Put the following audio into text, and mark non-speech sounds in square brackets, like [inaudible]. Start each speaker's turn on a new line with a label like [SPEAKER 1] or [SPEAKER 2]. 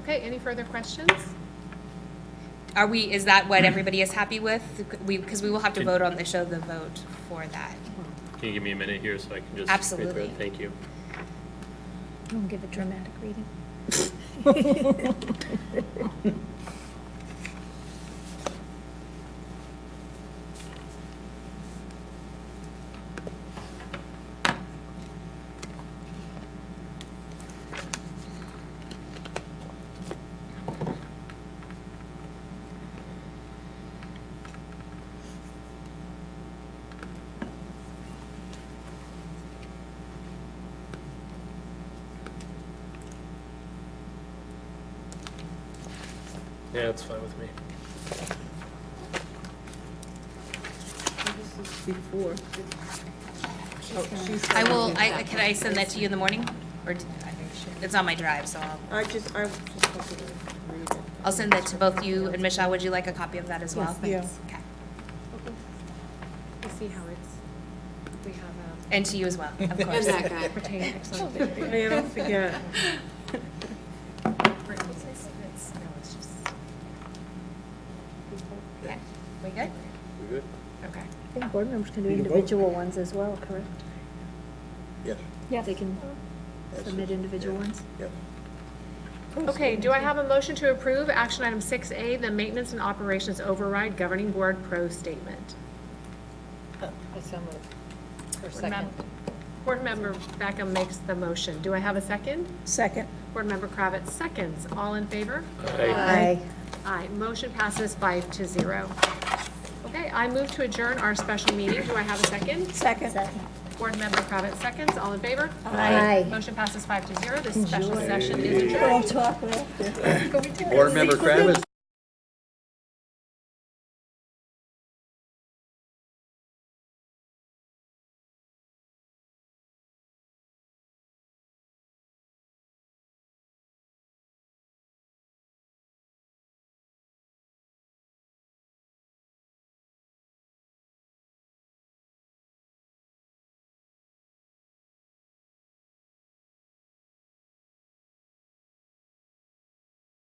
[SPEAKER 1] Okay, any further questions?
[SPEAKER 2] Are we, is that what everybody is happy with? We, because we will have to vote on the show the vote for that.
[SPEAKER 3] Can you give me a minute here so I can just? read through it?
[SPEAKER 2] Absolutely.
[SPEAKER 3] Thank you.
[SPEAKER 4] Don't give a dramatic reading.
[SPEAKER 3] Yeah, it's fine with me.
[SPEAKER 5] This is before. Oh, she's
[SPEAKER 2] I will,
[SPEAKER 5] sending
[SPEAKER 2] I,
[SPEAKER 5] it.
[SPEAKER 2] can I send that to you in the morning? Or, do- I think she- it's on my drive, so I'll,
[SPEAKER 5] I just, I was just hoping to read it.
[SPEAKER 2] I'll send that to both you and Michelle. Would you like a copy of that as well?
[SPEAKER 5] Yes,
[SPEAKER 2] Okay.
[SPEAKER 1] We'll see how it's, we have um,
[SPEAKER 2] And to you as well,
[SPEAKER 1] [laughs]
[SPEAKER 2] of
[SPEAKER 1] a.
[SPEAKER 2] course. [laughs]
[SPEAKER 1] Pertaining or something.
[SPEAKER 5] I mean, I don't forget.
[SPEAKER 2] Okay. We good?
[SPEAKER 6] We good?
[SPEAKER 2] Okay.
[SPEAKER 4] I think board members can do
[SPEAKER 6] Need to vote?
[SPEAKER 4] individual ones as well, correct?
[SPEAKER 6] Yes.
[SPEAKER 4] Yeah. They can
[SPEAKER 6] That's
[SPEAKER 4] submit
[SPEAKER 6] it.
[SPEAKER 4] individual
[SPEAKER 6] Yeah.
[SPEAKER 4] ones?
[SPEAKER 6] Yes.
[SPEAKER 1] Okay, do I have a motion to approve action item 6A, the Maintenance and Operations Override Governing Board Pro Statement? I so second. Board Member Beckham makes the motion. Do I have a second?
[SPEAKER 7] Second.
[SPEAKER 1] Board Member Kravitz seconds. All in favor?
[SPEAKER 7] Aye.
[SPEAKER 1] Aye. Motion passes five to zero. Okay, I move to adjourn our special meeting. Do I have a second?
[SPEAKER 7] Second.
[SPEAKER 1] Board Member Kravitz seconds. All in favor?
[SPEAKER 7] Aye.
[SPEAKER 1] Motion passes five to zero. This special session is adjourned.
[SPEAKER 7] We'll talk later.
[SPEAKER 6] Board Member Kravitz,